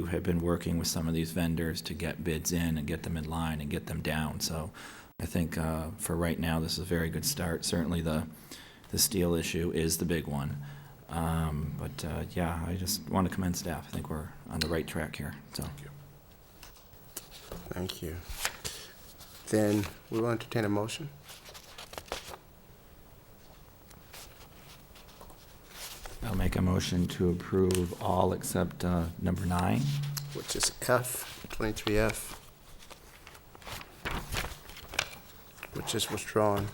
who have been working with some of these vendors to get bids in and get them in line and get them down. So I think uh, for right now, this is a very good start. Certainly, the the steel issue is the big one. Um, but uh, yeah, I just want to commend staff. I think we're on the right track here. So Thank you. Then we will entertain a motion. I'll make a motion to approve all except uh, number nine. which is F, 23F, which is withdrawn.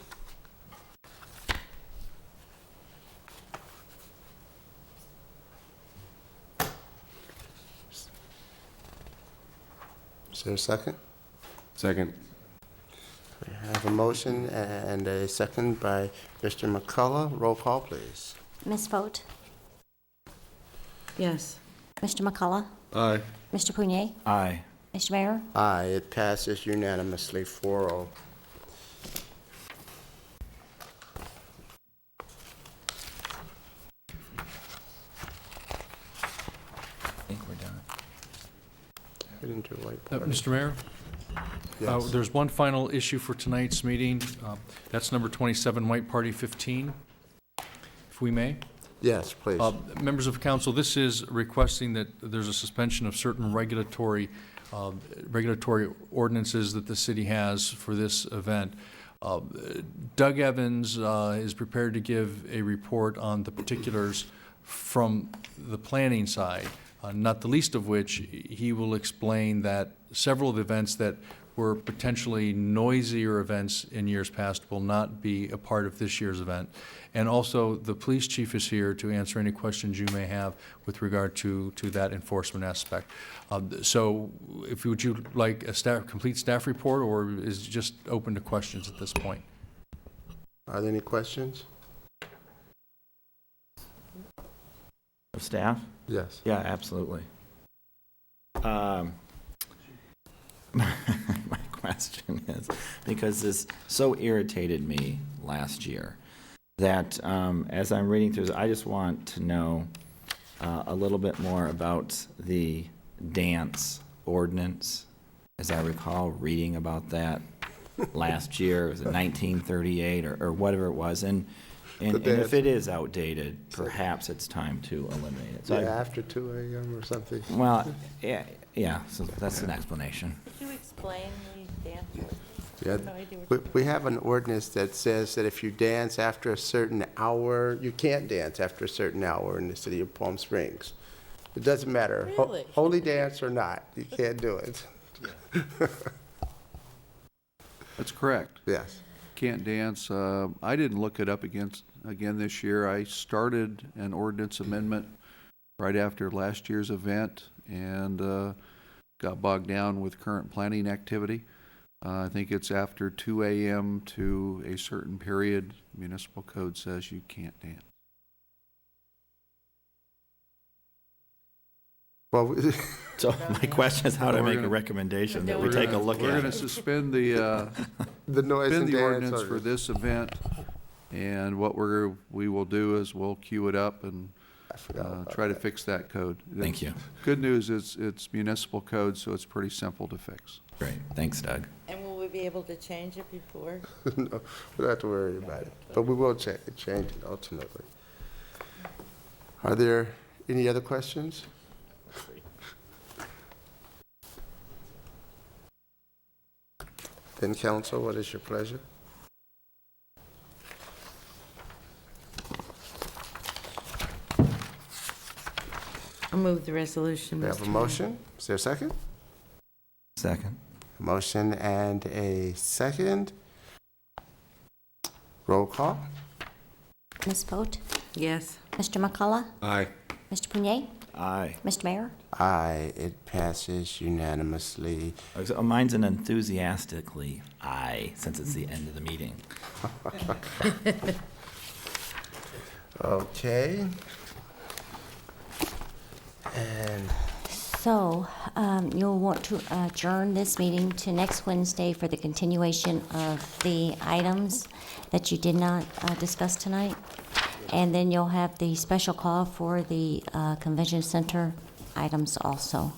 Is there a second? Second. We have a motion and a second by Mr. McCullough. Roll call, please. Ms. Fote, Yes. Mr. McCullough, Aye. Mr. Pugnay, Aye. Mr. Mayor, Aye, it passes unanimously, oh. 4-0. I think we're done. Get into a white Uh, party. Mr. Mayor, uh, Yes. there's one final issue for tonight's meeting. Uh, That's number 27, White Party 15, if we may. Yes, please. Uh, Members of council, this is requesting that there's a suspension of certain regulatory, uh, regulatory ordinances that the city has for this event. Uh, Doug Evans uh, is prepared to give a report on the particulars from the planning side, uh, not the least of which, he will explain that several of the events that were potentially noisier events in years past will not be a part of this year's event. And also, the police chief is here to answer any questions you may have with regard to, to that enforcement aspect. Um, So if, you- would you like a staff, complete staff report, or is it just open to questions at this point? Are there any questions? Of staff? Yes. Yeah, absolutely. Um, my question is because this so irritated me last year that um, as I'm reading through, this, I just want to know uh, a little bit more about the dance ordinance. As I recall, reading about that last year, it was in 1938 or, or whatever it was, and. And, and if it is outdated, perhaps it's time to eliminate it. So I- Yeah, after two AM or something. well, yeah, yeah, so that's an explanation. Could you explain the dance? Yeah, We, we have an ordinance that says that if you dance after a certain hour, you can't dance after a certain hour in the city of Palm Springs. It doesn't matter, ho- Really? holy dance or not, you can't do it. That's correct. Yes. Can't dance. Uh, I didn't look it up against, again this year. I started an ordinance amendment right after last year's event and uh, got bogged down with current planning activity. Uh, I think it's after 2 a.m. to a certain period, municipal code says you can't dance. Well, we- So my question is how to We're make a gonna- recommendation that We're we take a gonna- look We're at. going to it. suspend the, uh, the noise Been and the dance. ordinance for ordinance. this event, and what we're, we will do is we'll queue it up and I forgot uh, about try to that. fix that code. Thank you. Good news is it's municipal code, so it's pretty simple to fix. Great, thanks, Doug. And will we be able to change it before? No, We don't have to worry about it, but we will cha- change it ultimately. Are there any other questions? Then council, what is your pleasure? I'll move the resolution, We have a Mr. Mayor. motion? Is there a second? Second. A Motion and a second. Roll call? Ms. Fote, Yes. Mr. McCullough, Aye. Mr. Pugnay, Aye. Mr. Mayor, Aye, it passes unanimously. So Mine's an enthusiastically aye, since it's the end of the meeting. Okay. And so um, you'll want to adjourn this meeting to next Wednesday for the continuation of the items that you did not uh, discuss tonight. And then you'll have the special call for the uh, Convention Center items also.